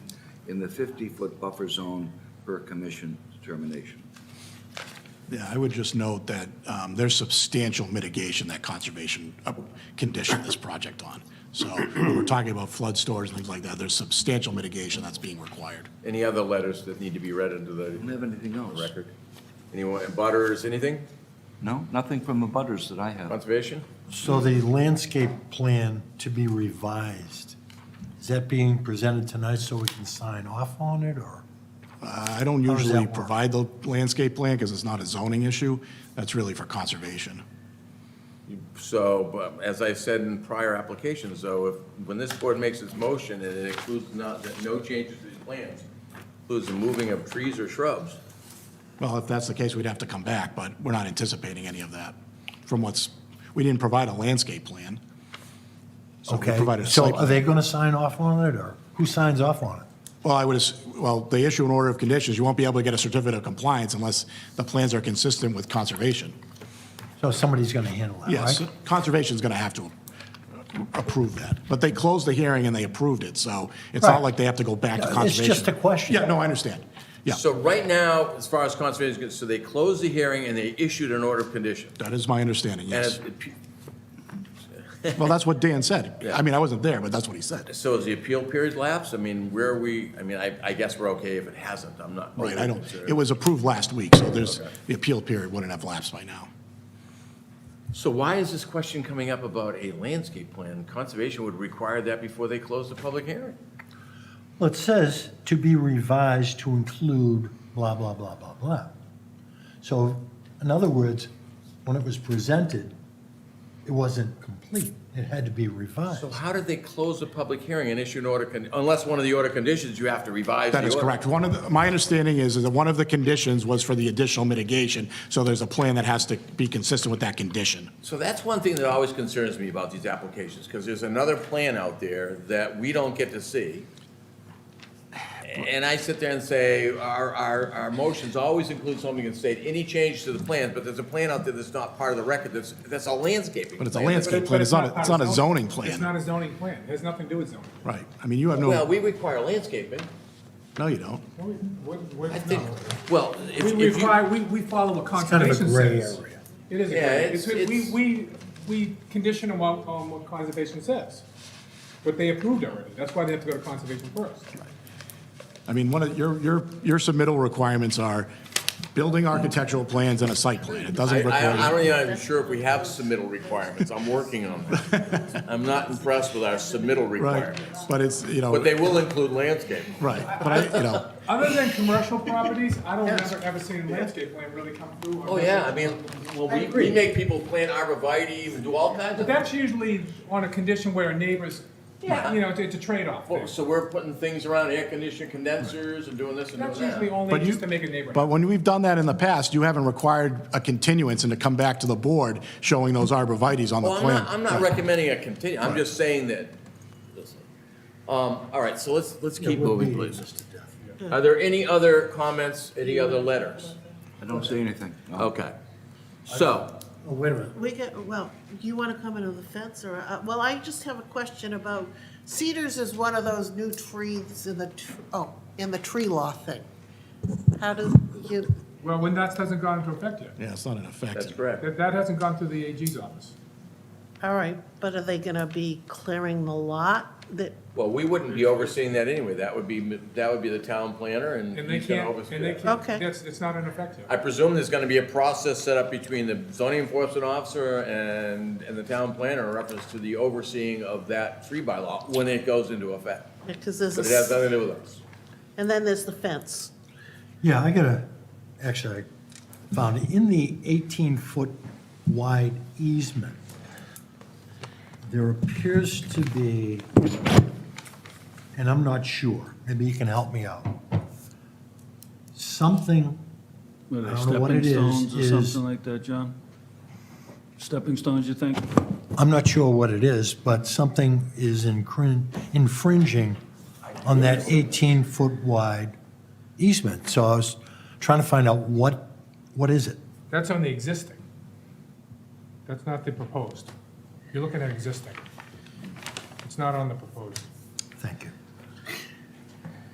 in the 50-foot buffer zone per commission determination. Yeah, I would just note that um, there's substantial mitigation that conservation uh, conditioned this project on. So when we're talking about flood stores and things like that, there's substantial mitigation that's being required. Any other letters that need to be read into Don't the have anything else? record? Anyone, butters, anything? No, nothing from the butters that I have. Conservation? So the landscape plan to be revised, is that being presented tonight so we can sign off on it, or? Uh, I don't How does that usually work? provide the landscape plan because it's not a zoning issue. That's really for conservation. So, but as I said in prior applications, though, if, when this board makes its motion and it includes not, that no changes to these plans, includes the moving of trees or shrubs, Well, if that's the case, we'd have to come back, but we're not anticipating any of that from what's, we didn't provide a landscape plan. So we Okay, provided a site so are plan. they gonna sign off on it, or who signs off on it? Well, I would, ass- well, they issue an order of conditions. You won't be able to get a certificate of compliance unless the plans are consistent with conservation. So somebody's gonna handle that, right? Yes, conservation's going to have to approve that. But they closed the hearing and they approved it, so it's not Right. like they have to go back to Yeah, it's conservation. just a question. Yeah, no, I understand. Yeah, So right now, as far as conservation is concerned, so they closed the hearing and they issued an order of condition. that is my understanding, And yes. if the pe- Well, that's what Dan said. Yeah. I mean, I wasn't there, but that's what he said. so has the appeal period lapsed? I mean, where are we, I mean, I, I guess we're okay if it hasn't, I'm not. Right, I don't, concerned. it was approved last week, so there's, the appeal period wouldn't have lapsed by now. So why is this question coming up about a landscape plan? Conservation would require that before they close the public hearing. Well, it says to be revised to include blah, blah, blah, blah, blah. So, in other words, when it was presented, it wasn't complete. It had to be revised. So how did they close the public hearing and issue an order, con- unless one of the order conditions, you have to revise the That is order? correct. One of, the- my understanding is is that one of the conditions was for the additional mitigation, so there's a plan that has to be consistent with that condition. So that's one thing that always concerns me about these applications, because there's another plan out there that we don't get to see. And I sit there and say, our, our, our motions always include something that state, any change to the plans, but there's a plan out there that's not part of the record, that's, that's a landscaping. But it's a plan. landscape- But it- plan. but It's not a- it's not a part of zoning It's plan. not a zoning plan. It has nothing to do with zoning. Right. I mean, you have Well, no, we require landscaping. no, you don't. No, we- we- we- I think, no. well, if, We, if we you. require, we, we follow what kind of a conservation gray says. area. It is a Yeah, gray. it's- It's- We, it's- we, we condition on what, on what conservation says. But they approved already. That's why they have to go to conservation first. I mean, one of, your, your, your submittal requirements are building architectural plans and a site plan. It doesn't I, require. I, I'm not even sure if we have submittal requirements. I'm working on that. I'm not impressed with our submittal Right, requirements, but it's, you know, but they will include landscaping. right, but I, you know, Other than commercial properties, I don't ever, ever see a landscape plan really come through. on Oh, that. yeah, I mean, well, we, we make people plant arborvitae and do all kinds But of, that's usually on a condition where a neighbor's, you Yeah. know, it's a trade-off thing. Well, so we're putting things around air conditioning condensers and doing this and doing That's that. usually only But you- just to make a neighborhood. but when we've done that in the past, you haven't required a continuance and to come back to the board showing those arborvitae's on the Well, I'm plan. not, I'm not recommending a continue, I'm just saying that, listen. Um, all right, so let's, let's keep moving, please. Are there any other comments, any other letters? I don't see anything. No. Okay, so, Oh, wait a minute. We get, well, do you want to comment on the fence or, uh, well, I just have a question about cedars is one of those new trees in the, tr- oh, in the tree law thing. How does, you, Well, when that hasn't gone into effect yet. Yeah, it's not an effect. that's correct. That, that hasn't gone through the AG's office. all right, but are they going to be clearing the lot that, Well, we wouldn't be overseeing that anyway, that would be, that would be the town planner and And they he's gonna can't, oversee and they that. can't, Okay. that's, it's not in effect yet. I presume there's gonna be a process set up between the zoning enforcement officer and, and the town planner in reference to the overseeing of that tree bylaw when it goes into effect. because there's, But it a has s- nothing to do with us. and then there's the fence. Yeah, I gotta, actually, I found it, in the 18-foot wide easement, there appears to be, and I'm not sure, maybe you can help me out, something, Were they I don't know what it stepping is, stones or is- something like that, John? Stepping stones, you think? I'm not sure what it is, but something is incrin- infringing on that 18-foot wide easement. So I was trying to find out what, what is it? That's on the existing. That's not the proposed. You're looking at existing. It's not on the proposed. Thank you.